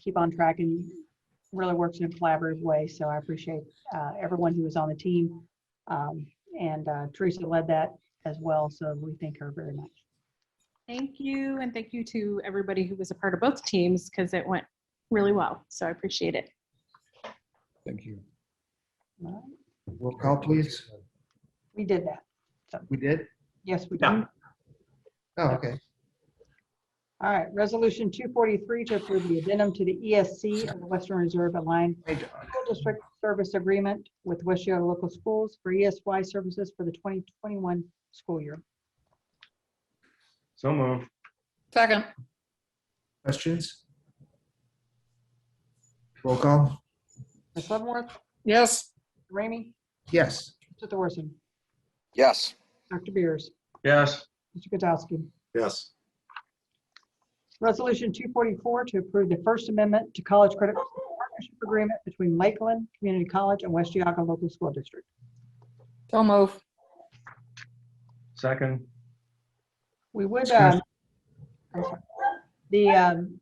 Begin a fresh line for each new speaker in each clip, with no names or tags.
keep on track and really works in a collaborative way. So I appreciate uh, everyone who was on the team. Um, And uh, Teresa led that as well, so we thank her very much.
Thank you, and thank you to everybody who was a part of both teams because it went really well. So I appreciate it.
Thank you.
All right.
Roll call, please.
We did that.
We did?
Yes, we did.
Yeah.
All
Oh, okay.
right, Resolution 243 to approve the addendum to the ESC of the Western Reserve Aligned
Hey, John.
School District Service Agreement with Washington Local Schools for ESY services for the 2021 school year.
So moved.
Second.
Questions? Roll call?
Ms. Leavenworth,
Yes.
Ramey,
Yes.
Mr. Thorson,
yes,
Dr. Beers,
Yes.
Mr. Katsowski.
Yes,
Resolution 244 to approve the First Amendment to College Credit Partnership Agreement between Lakeland Community College and West Yaga Local School District.
So move.
Second.
We would,
Excuse-
um, I'm sorry. the, um,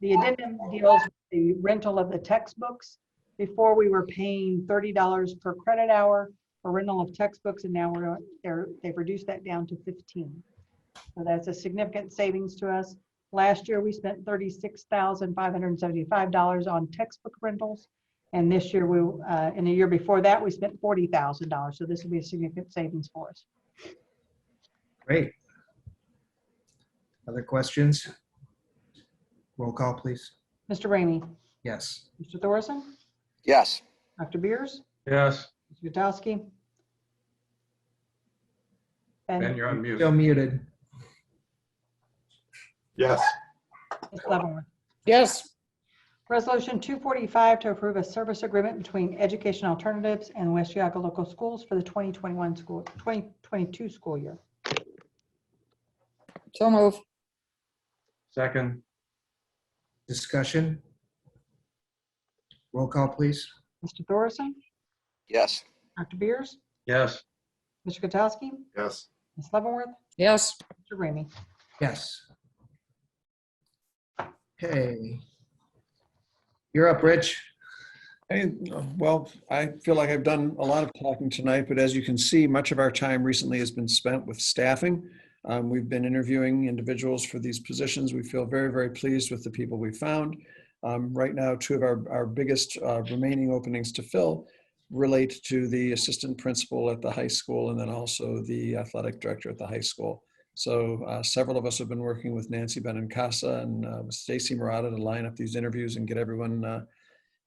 the addendum deals with the rental of the textbooks. Before, we were paying $30 per credit hour for rental of textbooks, and now we're, they're, they've reduced that down to 15. So that's a significant savings to us. Last year, we spent $36,575 on textbook rentals. And this year, we, uh, and the year before that, we spent $40,000. So this will be a significant savings for us.
Great. Other questions? Roll call, please.
Mr. Ramey?
Yes.
Mr. Thorson?
yes,
Dr. Beers?
Yes.
Mr. Gutowski?
Ben,
And
you're on mute.
Still muted.
yes,
Ms. Leavenworth.
Yes.
Resolution 245 to approve a service agreement between Education Alternatives and West Yaga Local Schools for the 2021 school, 2022 school year.
So move.
Second.
Discussion? Roll call, please.
Mr. Thorson?
yes,
Dr. Beers?
Yes.
Mr. Gutowski?
yes,
Ms. Leavenworth?
Yes.
Mr. Ramey?
Yes. Okay. You're up, Rich.
Hey, well, I feel like I've done a lot of talking tonight, but as you can see, much of our time recently has been spent with staffing. Um, we've been interviewing individuals for these positions. We feel very, very pleased with the people we found. Um, right now, two of our, our biggest uh, remaining openings to fill relate to the assistant principal at the high school and then also the athletic director at the high school. So uh, several of us have been working with Nancy Benincasa and uh, Stacy Murata to line up these interviews and get everyone uh,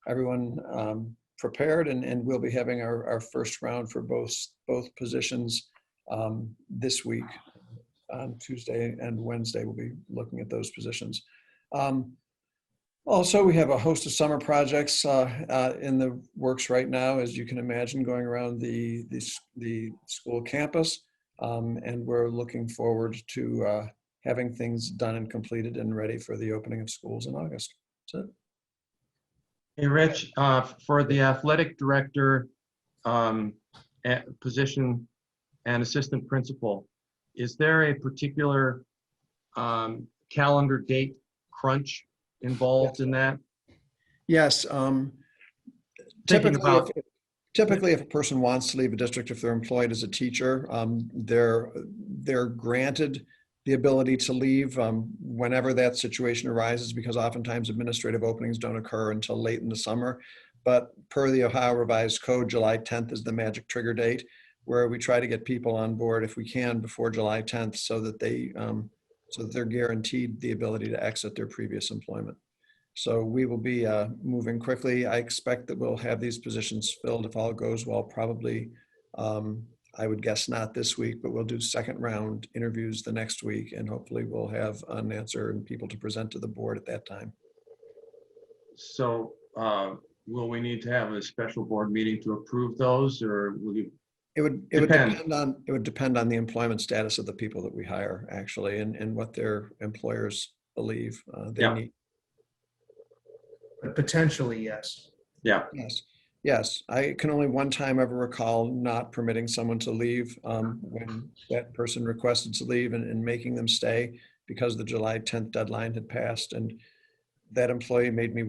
everyone um, prepared and, and we'll be having our, our first round for both, both positions um, this week. On Tuesday and Wednesday, we'll be looking at those positions. Um, also, we have a host of summer projects uh, uh, in the works right now, as you can imagine, going around the, the, s- the school campus. Um, and we're looking forward to uh, having things done and completed and ready for the opening of schools in August. That's it.
Hey, Rich, uh, for the athletic director um, a- position and assistant principal, is there a particular um, calendar date crunch involved in that?
Yes. um,
Thinking
Typically,
about-
if- typically, if a person wants to leave a district, if they're employed as a teacher, um, they're, they're granted the ability to leave um, whenever that situation arises, because oftentimes administrative openings don't occur until late in the summer. But per the Ohio Revised Code, July 10th is the magic trigger date, where we try to get people on board if we can before July 10th, so that they, um, so that they're guaranteed the ability to exit their previous employment. So we will be uh, moving quickly. I expect that we'll have these positions filled if all goes well, probably. um, I would guess not this week, but we'll do second round interviews the next week and hopefully we'll have an answer and people to present to the board at that time.
So uh, will we need to have a special board meeting to approve those or will you?
It would, it would
Depend.
depend on, it would depend on the employment status of the people that we hire actually and, and what their employers believe uh, they
Yeah.
need.
But Potentially, yes.
Yes, yes. I can only one time ever recall not permitting someone to leave um, when that person requested to leave and, and making them stay because the July 10th deadline had passed. And that employee made me